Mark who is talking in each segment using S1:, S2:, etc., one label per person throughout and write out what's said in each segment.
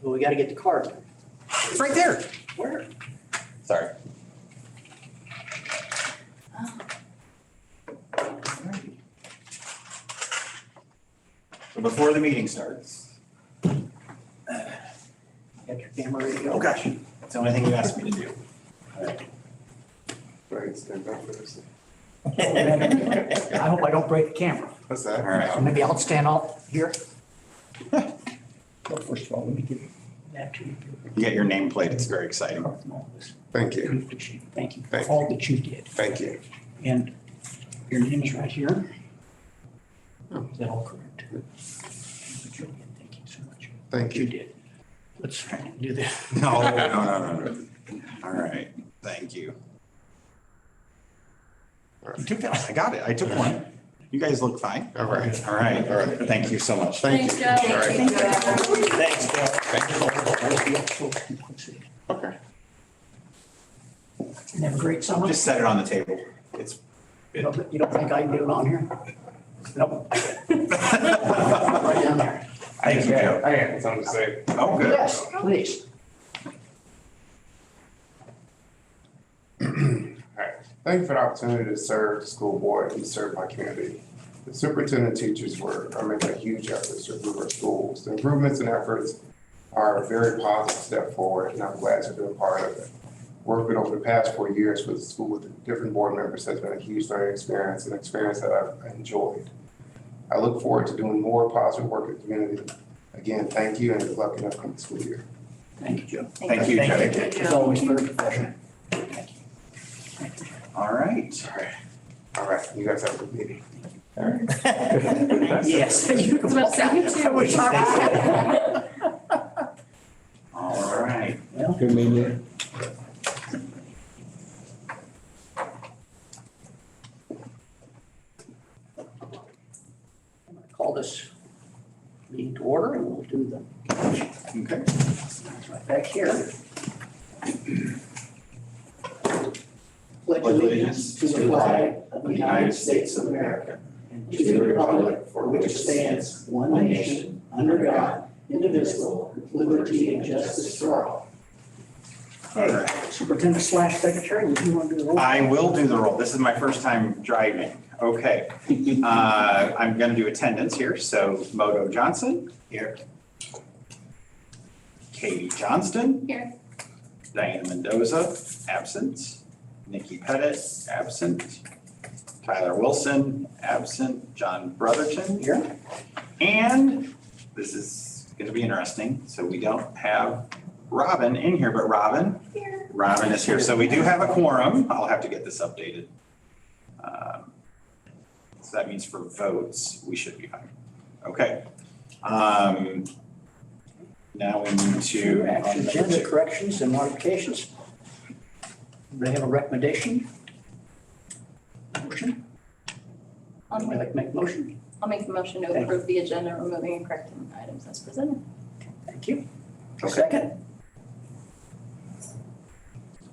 S1: Well, we gotta get the card.
S2: It's right there.
S1: Where?
S2: Sorry. So before the meeting starts.
S1: Got your camera ready to go?
S2: Oh, gosh, it's the only thing you asked me to do.
S3: Right, stand up for this.
S1: I hope I don't break the camera.
S3: What's
S2: All
S3: that?
S2: right.
S1: Maybe I'll stand out here.
S4: Well, first of all, let me give you
S1: That too.
S2: You get your nameplate. It's very exciting.
S3: Thank you,
S1: Thank you for
S3: Thank you.
S1: all that you did.
S3: thank you.
S1: And your name is right here.
S3: Oh.
S1: Is that all correct? Thank you so much.
S3: Thank
S1: You
S3: you.
S1: did. Let's do this.
S2: No, no, no, no, no. All right, thank you. You took that, I got it. I took one. You guys look fine.
S3: All right.
S2: All right,
S3: All right.
S2: thank you so much.
S3: Thank
S5: Thanks,
S3: you.
S5: Joe.
S3: All right.
S2: Thanks, Bill.
S3: Okay.
S1: And have a great summer.
S2: Just set it on the table. It's.
S1: You don't you don't think I can do it on here? Nope. I can. Right down there.
S2: Thank you, Joe.
S3: I have something to say.
S2: Oh, good.
S1: Yes, please.
S3: Thank you for the opportunity to serve the school board and serve my community. The superintendent and teachers were, are making a huge effort to improve our schools. The improvements and efforts are a very positive step forward, and I'm glad to be a part of it. Working over the past four years with the school with different board members has been a huge learning experience, an experience that I've enjoyed. I look forward to doing more positive work in the community. Again, thank you and good luck in the upcoming school year.
S1: Thank you, Joe.
S2: Thank you, Joe.
S5: Thank you.
S1: It's always very professional.
S2: All right.
S3: All right, all right, you guys have a good meeting.
S1: Yes.
S5: I was about to say, you too.
S1: I wish I was there.
S2: All right.
S1: Well,
S4: good meeting.
S1: I'm gonna Call this meeting to order and we'll do the
S2: Okay.
S1: That's right back here. Pledge allegiance to the flag of the United States of America and to the republic for which stands one nation, under God, indivisible, with liberty and justice for all. Hey, Superintendent slash secretary, would you want to do the roll?
S2: I will do the roll. This is my first time driving. Okay. Uh, I'm going to do attendance here. So Moto Johnson. Here. Katie Johnston.
S5: Here.
S2: Diana Mendoza, absent. Nikki Pettit, absent. Tyler Wilson, absent. John Brotherton. Here. And this is going to be interesting. So we don't have Robin in here, but Robin, Robin is here, so we do have a quorum. I'll have to get this updated. Um, So that means for votes, we should be fine. Okay. Um, Now we need to.
S1: Action agenda corrections and modifications. They have a recommendation? Motion?
S5: I'll
S1: Anybody
S5: make-
S1: like to make a motion?
S5: I'll make the motion to approve the agenda, removing and correcting items as presented.
S1: Thank you.
S2: Okay.
S1: Second?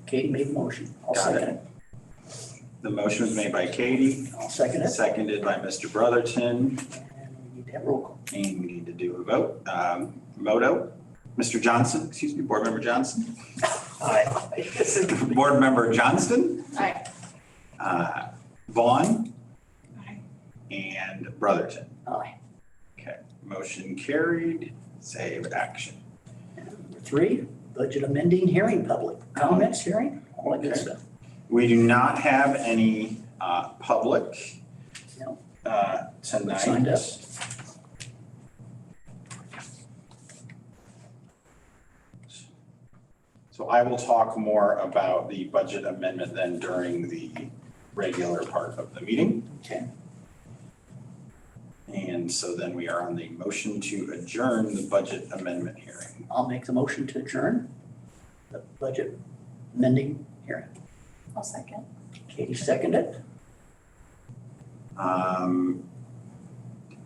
S1: Katie made the motion. I'll
S2: Got it.
S1: second it.
S2: The motion was made by Katie,
S1: I'll second it.
S2: seconded by Mr.
S1: And
S2: Brotherton,
S1: we need to have roll call.
S2: and we need to do a vote. Um, Moto, Mr. Johnson, excuse me, Board Member Johnson,
S1: Aye. This is-
S2: Board Member Johnston.
S5: Aye.
S2: uh, Vaughn. And Brotherton.
S1: Aye.
S2: Okay, motion carried, save action.
S1: Number Three, budget amending hearing, public comments hearing, all that good
S2: Okay.
S1: stuff.
S2: We do not have any uh, public
S1: No.
S2: uh, tonight.
S1: Signed up.
S2: So I will talk more about the budget amendment then during the regular part of the meeting.
S1: Okay.
S2: And so then we are on the motion to adjourn the budget amendment hearing.
S1: I'll make the motion to adjourn the budget amending hearing.
S5: I'll second.
S1: Katie seconded it.
S2: Um,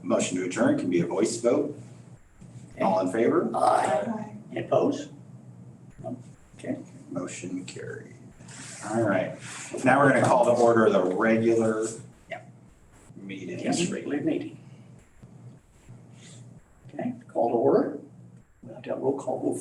S2: Motion to adjourn can be a voice vote. All in favor?
S1: Aye.
S5: Aye.
S1: Any opposed?
S2: Motion carried. All right, now we're gonna call to order the regular
S1: Yep.
S2: meeting.
S1: Yes, regular meeting. Okay, call to order. We'll out. Roll call vote for